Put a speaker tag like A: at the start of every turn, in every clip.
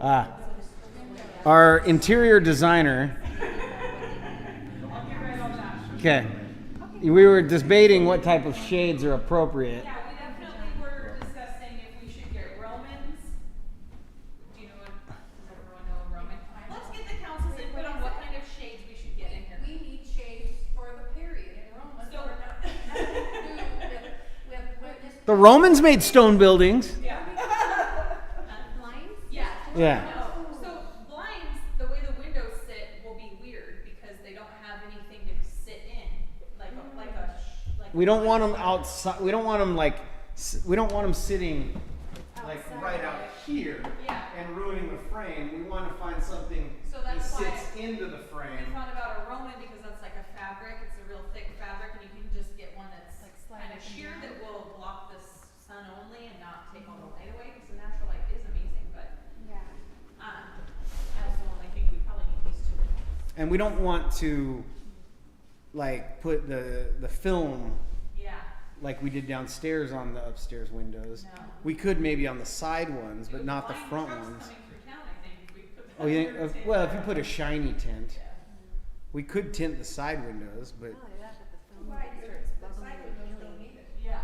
A: Ah. Our interior designer. Okay. We were debating what type of shades are appropriate.
B: Yeah, we definitely were discussing if we should get Romans. Do you know what, does everyone know what Roman time? Let's get the council's input on what kind of shades we should get in here.
C: We need shades for the period in Rome, so we're not, nothing to do with, with, with this.
A: The Romans made stone buildings.
B: Uh,
C: Blinds?
B: Yeah.
A: Yeah.
B: No, so blinds, the way the windows sit will be weird because they don't have anything to sit in, like, a- like a, sh- like.
A: We don't want them outside. We don't want them like. s- We don't want them sitting like right out here
B: Yeah.
A: and ruining the frame. We want to find something
B: So
A: that
B: that's why
A: sits into the
B: We
A: frame.
B: thought about a Roman because that's like a fabric, it's a real thick fabric, and you can just get one that's
C: Like slide
B: kind of
C: up and
B: sheer
C: down.
B: that will block the s- sun only and not take all the light away, because the natural light is amazing, but,
C: Yeah.
B: um, I also only think we probably need these two windows.
A: And we don't want to like put the the film
B: Yeah,
A: like we did downstairs on the upstairs windows.
B: no.
A: We could maybe on the side ones,
B: It
A: but
B: was
A: not the
B: blind
A: front
B: trucks
A: ones.
B: Coming through town, I think, if we put that
A: Oh yeah.
B: under
A: if-
B: the
A: Well, if
B: table.
A: you put a shiny tint,
B: Yeah.
A: we could tint the side windows, but
C: Why do it? Looks like we don't need it.
B: Yeah,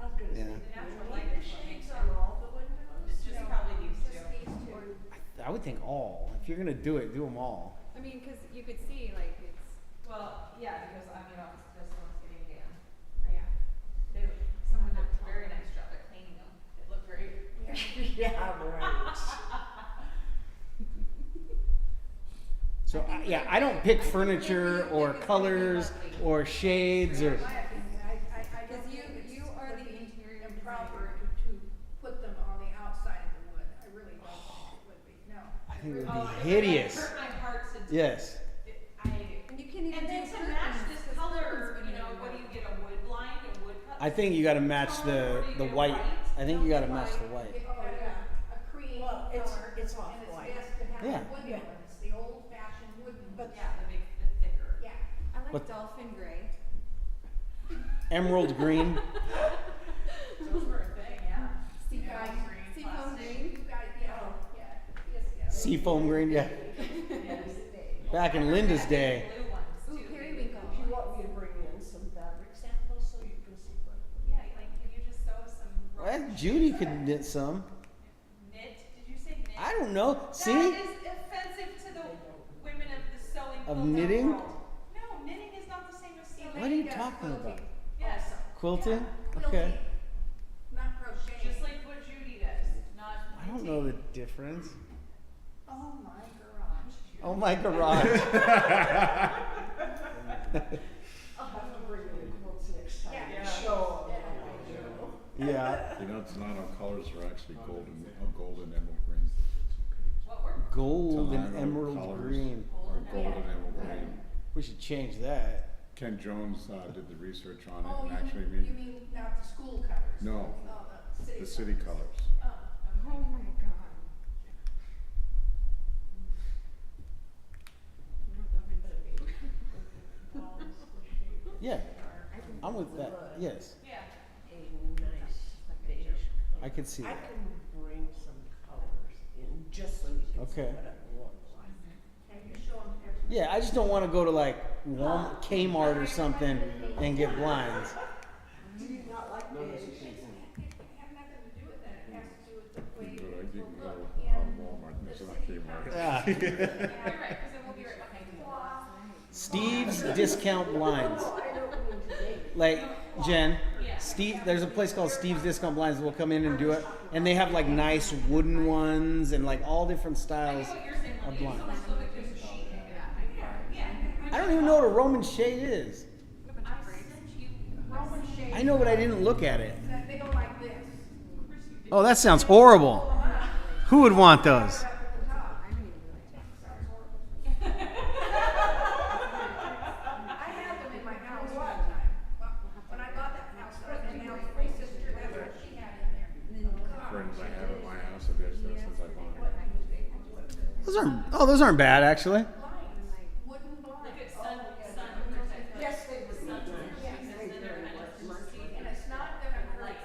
D: I was gonna
A: Yeah.
D: say,
B: the natural
D: do we
B: light
D: need the
B: is what makes
D: shades
B: it.
D: on all the windows?
B: It's just
D: No.
B: probably these
C: Just
B: two.
C: these two.
A: I would think all. If you're gonna do it, do them all.
E: I mean, because you could see like it's
B: Well, yeah, because I mean, obviously this one's getting down.
E: yeah.
B: They, someone did a very nice job at cleaning them. It looked great.
D: Yeah, right.
A: So I, yeah, I don't pick furniture or colors or shades or.
D: My opinion, I, I, I don't
C: Because you,
D: think it's
C: you are
D: would
C: the
D: be
C: interior
D: improper
C: designer.
D: to, to put them on the outside of the wood, I really don't think it would be, no.
A: I think it would
B: Oh,
A: be
B: it really
A: hideous.
B: Hurt my heart to.
A: Yes.
B: it- I.
C: And you can't even do
B: And then
C: curtains.
B: to match this
C: 'cause
B: color,
C: curtains
B: you
C: wouldn't
B: know,
C: even
B: what do
C: work.
B: you get, a wood blind, a wood cut?
A: I think you gotta match the the white. I think you gotta match the white.
D: Oh, yeah.
C: A cream
D: Well,
C: color.
D: it's- it's
C: And it's
D: off-white.
C: best to
A: Yeah.
C: have wooden
D: Yeah.
C: ones, the old fashioned wooden.
D: But-
B: Yeah, the big, the thicker.
C: Yeah.
E: I like
A: What-
E: dolphin gray.
A: Emerald green.
B: Those were a thing, yeah.
C: Sea
B: Yeah,
C: foam-
B: green,
E: sea foam
B: plastic.
E: green.
C: You guys, yeah,
D: Oh.
C: yeah, yes, yeah.
A: Seafoam green. Yeah.
B: Yes.
A: Back in Linda's day.
B: Blue ones
E: Ooh,
B: too.
E: periwinkle.
D: Do you want me to bring in some fabric samples so you can see what?
B: Yeah, like, if you just sew some.
A: Well, Judy could knit some.
B: Knit, did you say knit?
A: I don't know. See?
B: That is offensive to the women of the sewing.
A: Of
B: quilting
A: knitting?
B: world. No, knitting is not the same as sewing.
A: What are you talking about?
B: Yes,
A: Quilting? Okay.
C: Quilting, not crocheting.
B: just like what Judy does, not.
A: I don't know the difference.
D: Oh, my garage.
A: Oh my garage.
D: I'll have to bring in the quilts next time
C: Yeah.
D: and show
C: Yeah.
D: 'em what I do.
A: Yeah.
F: You know, it's not our colors are actually golden, uh, golden emerald green.
B: What were,
A: Gold and
F: Toledo
A: emerald
F: colours
A: green.
F: Are golden emerald green.
A: We should change that.
F: Ken Jones, uh, did the research on
C: Oh,
F: it and
C: you,
F: actually
C: mean- you
F: made
C: mean not the school colors?
F: No.
C: Oh, the city.
F: the uh, city colors.
B: oh,
E: Oh my god.
A: Yeah. I'm with that. Yes.
B: yeah,
D: A nice beige
A: I
D: color.
A: could see
D: I
A: that.
D: can bring some colors in just so you can see
A: Okay.
D: what it looks like.
C: Can you show 'em here?
A: Yeah, I just don't want to go to like Walmart, Kmart or something and get blinds.
D: Do you not like beige?
C: It doesn't have nothing to do with that, it has to do with the
F: But I
C: way
F: didn't
C: people
F: go
C: look
F: to uh,
C: in.
F: Walmart,
C: the
F: it's not
C: city
F: Kmart.
C: colors.
A: Ah.
B: you're right, because then we'll be right behind you.
A: Steve's discount blinds.
D: No, I don't mean today.
A: Like Jen,
B: Yeah.
A: Steve. There's a place called Steve's Discount Blinds. We'll come in and do it, and they have like nice wooden ones and like all different
B: I
A: styles
B: get what you're saying,
A: of
B: when you
A: blinds.
B: someone's looking through the sheet, yeah, yeah.
A: I don't even know what a Roman shade is.
B: I sent you Roman shades.
A: I know, but I didn't look at it.
C: That uh, They go like this.
A: Oh, that sounds horrible. Who would want those?
C: I had them in my house one time. When I bought that house, I had my my sister, that's what she had in there.
F: Friends I have at my house, and there's, since I bought it.
A: Those aren't. Oh, those aren't bad actually.
C: Oh,